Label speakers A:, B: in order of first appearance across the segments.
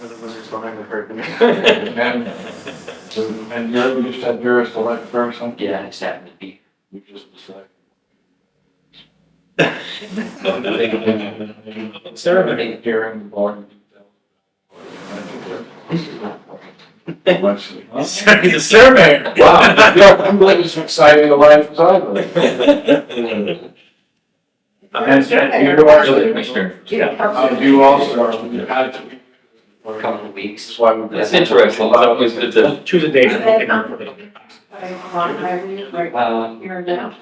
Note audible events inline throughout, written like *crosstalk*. A: behind the
B: *laughs*
A: curtain.
B: And, and you're, you said you're a select person,
A: Yeah, it's happened to be.
B: you just decide.
A: Ceremony.
B: Hearing the board. Much.
C: Sorry, the surveyor.
B: Wow, you're completely as exciting a life as I live. And and you're also, uh, you also are, you had to.
A: For a couple of weeks.
B: That's why we.
D: That's interesting. It's always good to.
C: Choose a date.
A: Um,
E: Here now.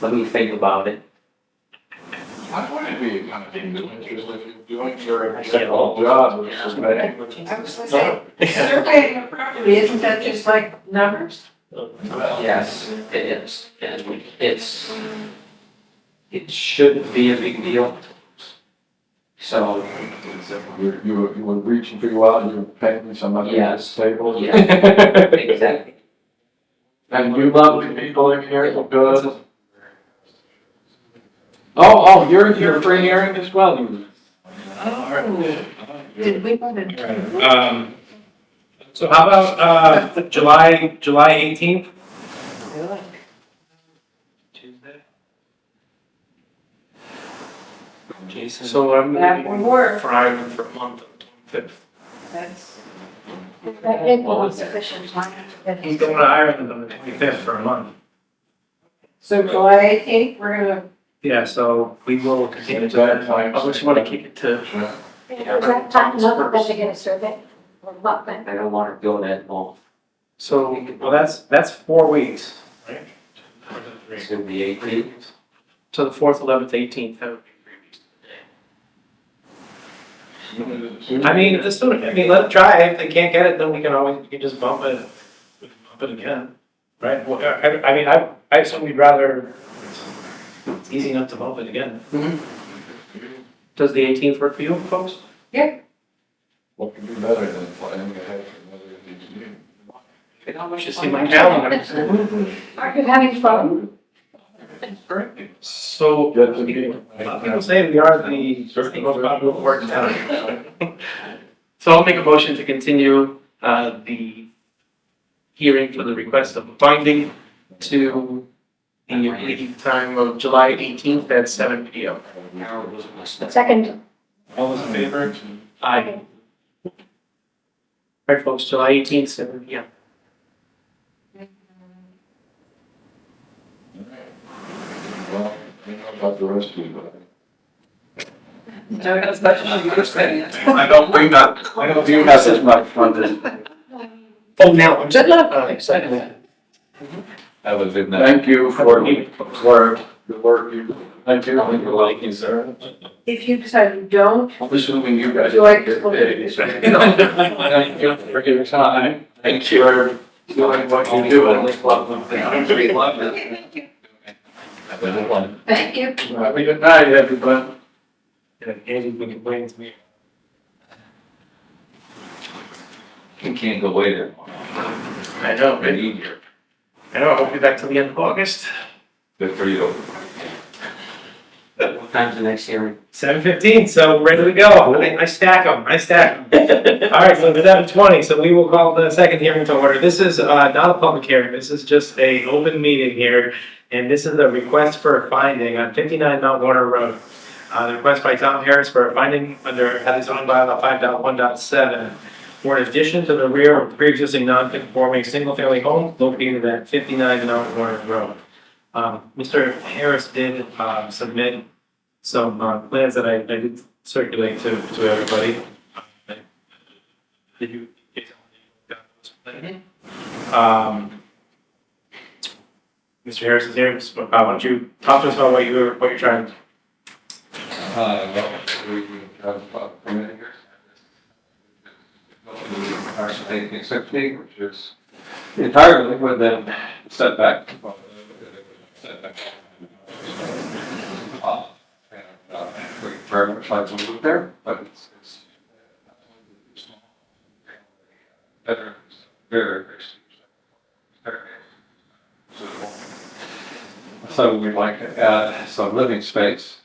A: let me think about it.
B: Why would it be kind of interesting if you're doing your exceptional job or something?
E: I was gonna say, surveying a property, isn't that just like numbers?
A: Yes, it is. And it's, it shouldn't be a big deal. So,
B: You, you were- you were reaching for you out and you were painting somebody else's
A: Yes.
B: table.
A: Yeah. exactly.
B: And you love the people in here, the good. Oh, oh, you're, you're free hearing as well. you- Oh.
E: Did we want to?
C: Um, so how about, uh, July, July eighteenth?
D: Tuesday. Jason.
C: So I'm
E: That would
C: leaving
E: work,
C: Friday for a month, fifth.
E: that's. That gave them sufficient time to get.
C: I'm going to Ireland on the twenty-fifth for a month.
E: So July eighteenth, we're gonna.
C: Yeah, so we will continue to
B: Bad times.
C: Unless you want to kick it to,
F: Is that time enough for them to get a survey? Or what, then?
A: I don't want to go that long.
C: so, well, that's, that's four weeks. right?
A: It's gonna be eight weeks.
C: So the fourth, eleventh, eighteenth, I mean, just, sort of- I mean, let it try, if they can't get it, then we can always, we can just bump it, we can bump it again. Right, well, I, I- I mean, I, I assume we'd rather, it's easy enough to bump it again. Mm-hmm. Does the eighteenth work for you folks?
B: What could be better than planning ahead for another engineer?
C: Just in my calendar.
F: Are you having fun?
C: So,
B: Get to be.
C: a lot of people say we are the the most popular board in town. So I'll make a motion to continue uh, the hearing for the request of a finding to the meeting time of July 18th at seven PM.
A: Now it was my step.
F: Second,
C: All those in favor? Aye. All right, folks, July 18th, seven PM.
B: Well, I don't know about the rest of you, but.
E: No, that's not you
B: I don't bring that, I don't do that as much fun
C: Oh, now, I'm set up. I'm excited.
D: I was in that.
B: Thank you for, for the work you, thank you.
D: Like you, sir.
E: If you decide
B: *laughs*
E: you don't,
B: I'm assuming you guys.
E: Do I just look at this?
B: Thank you for your time. Thank you. For doing what you do. I just love them. I really love it.
E: thank you,
D: I was in one.
E: thank you.
B: Have a good night, everybody.
C: Andy's been complaining to me.
D: You can't go away there.
C: I know,
D: Been easier.
C: I know, I'll be back till the end of August.
D: Good for you.
A: What time's the next hearing?
C: Seven fifteen, so ready to go. I, I stack them. I stack them. All right, so it's seven twenty. So we will call the second hearing to order. This is uh, not a public hearing. This is just a open meeting here, and this is a request for a finding on fifty nine Mount Warner Road. Uh, the request by Tom Harris for a finding under Hadley zoning bylaw five dot one dot seven for an addition to the rear of pre-existing non-conforming single-family home located at fifty nine Mount Warner Road. Um, Mr. Harris did uh, submit some uh, plans that I, I did circulate to, to everybody. Did you? Um, Mr. Harris is here, so, uh, why don't you talk to us about what you're, what you're trying,
B: Uh, well, we have about three acres. Our state is 16, which is entirely within setback. setback. Uh, and, uh, We very much like to move there, but it's, it's. Better, very, very. very- So we'd like to add some living space